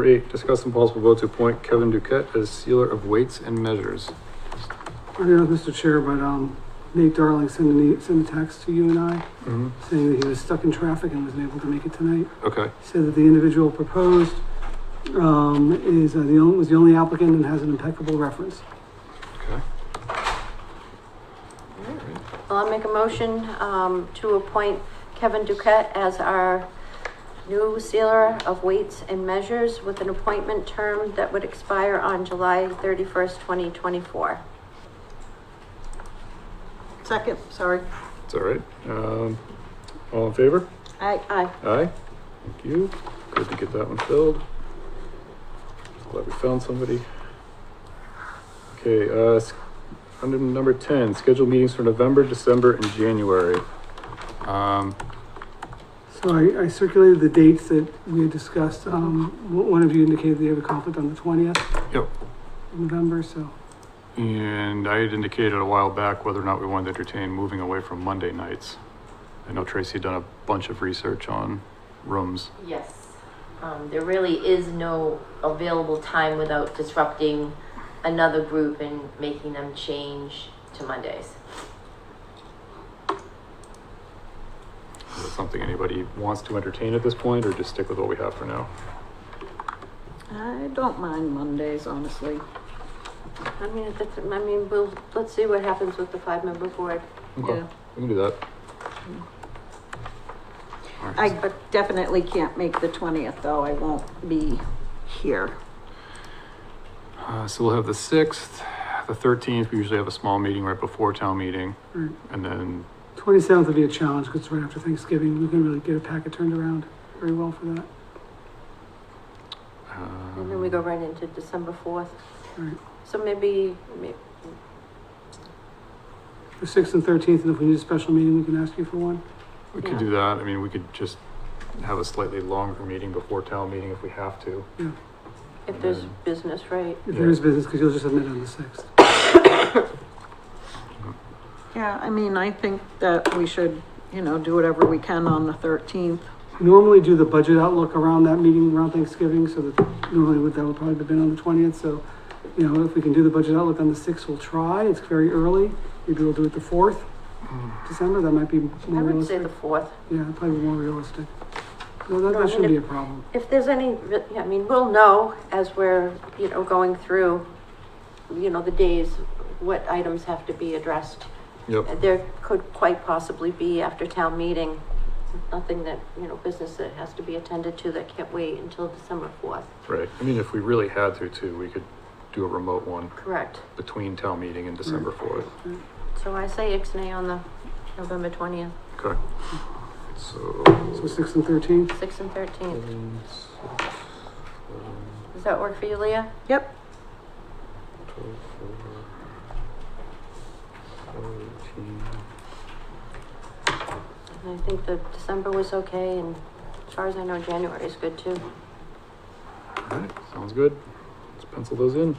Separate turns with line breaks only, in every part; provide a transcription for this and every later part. Number eight, discuss and possible vote to appoint Kevin Duquette as sealer of weights and measures.
Yeah, Mr. Chair, but, um, Nate Darling sent an, e- sent a text to you and I
Mhm.
saying that he was stuck in traffic and wasn't able to make it tonight.
Okay,
He said that the individual proposed, um, is, uh, the only, was the only applicant and has an impeccable reference.
okay.
Well, I'll make a motion, um, to appoint Kevin Duquette as our new sealer of weights and measures with an appointment term that would expire on July thirty-first, twenty twenty-four.
Second, sorry.
It's all right. Um, all in favor?
Aye.
Aye.
Aye. Thank you. Good to get that one filled. Glad we found somebody. Okay, uh, s- under number ten, schedule meetings for November, December, and January. Um,
So I, I circulated the dates that we had discussed. Um, o- one of you indicated that you have a conflict on the twentieth.
Yep.
November, so,
and I had indicated a while back whether or not we wanted to entertain moving away from Monday nights. I know Tracy had done a bunch of research on rooms.
Yes, um, there really is no available time without disrupting another group and making them change to Mondays.
Is that something anybody wants to entertain at this point, or just stick with what we have for now?
I don't mind Mondays, honestly.
I mean, that's, I mean, we'll, let's see what happens with the five-member board.
Okay,
Yeah.
we can do that. All right.
I definitely can't make the twentieth, though. I won't be here.
Uh, so we'll have the sixth, the thirteenth, we usually have a small meeting right before town meeting,
Mm.
right.
and then,
Twenty-seventh would be a challenge because it's right after Thanksgiving. We can really get a packet turned around very well for that.
um.
And then we go right into December fourth.
Right.
So maybe, may-
The sixth and thirteenth, and if we need a special meeting, we can ask you for one.
We could
Yeah.
do that, I mean, we could just have a slightly longer meeting before town meeting if we have to.
if there's
Mm.
business, right?
If there
Yeah.
is business, because you'll just admit on the sixth.
Yeah, I mean, I think that we should, you know, do whatever we can on the thirteenth.
Normally do the budget outlook around that meeting around Thanksgiving, so that normally would, that would probably have been on the twentieth, so, you know, if we can do the budget outlook on the sixth, we'll try. It's very early. Maybe we'll do it the fourth, December, that might be
I
more
would say
realistic.
the fourth.
Yeah, that'd probably be more realistic. No, that,
No, I
that shouldn't be
mean,
a problem.
If there's any, I mean, we'll know as we're, you know, going through, you know, the days, what items have to be addressed.
Yep,
There could quite possibly be after town meeting, nothing that, you know, business that has to be attended to that can't wait until December fourth.
right, I mean, if we really had to too, we could do a remote one
Correct.
between town meeting and December fourth.
So I say Ixnay on the November twentieth,
Okay. So.
So sixth and thirteenth,
sixth and thirteenth.
seven, six, seven,
Does that work for you, Leah?
Yep,
12, 14,
I think the December was okay and as far as I know, January is good too.
13. Alright, sounds good. Let's pencil those in.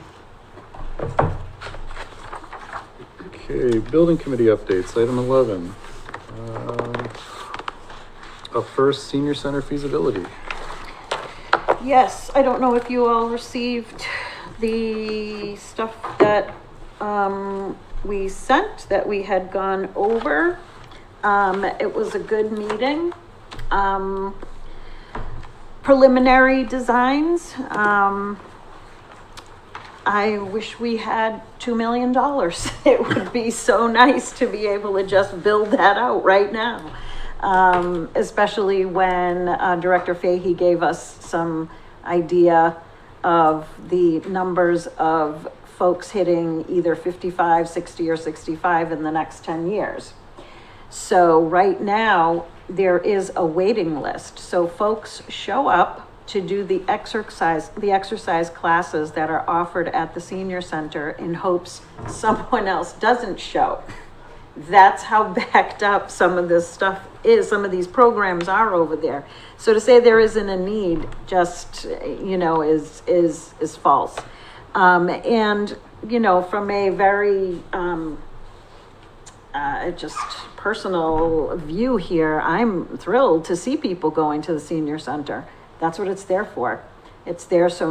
Okay, building committee updates, item eleven. Um, Up first, senior center feasibility.
yes, I don't know if you all received the stuff that, um, we sent, that we had gone over. Um, it was a good meeting. Um, preliminary designs, um, I wish we had two million dollars. It would be so nice to be able to just build that out right now. Um, especially when uh, Director Fahey gave us some idea of the numbers of folks hitting either 55, 60, or 65 in the next 10 years. So right now, there is a waiting list. So folks show up to do the exercise, the exercise classes that are offered at the senior center in hopes someone else doesn't show. That's how backed up some of this stuff is, some of these programs are over there. So to say there isn't a need just, you know, is, is, is false. Um, and, you know, from a very, um, uh, just personal view here, I'm thrilled to see people going to the senior center. That's what it's there for. It's there so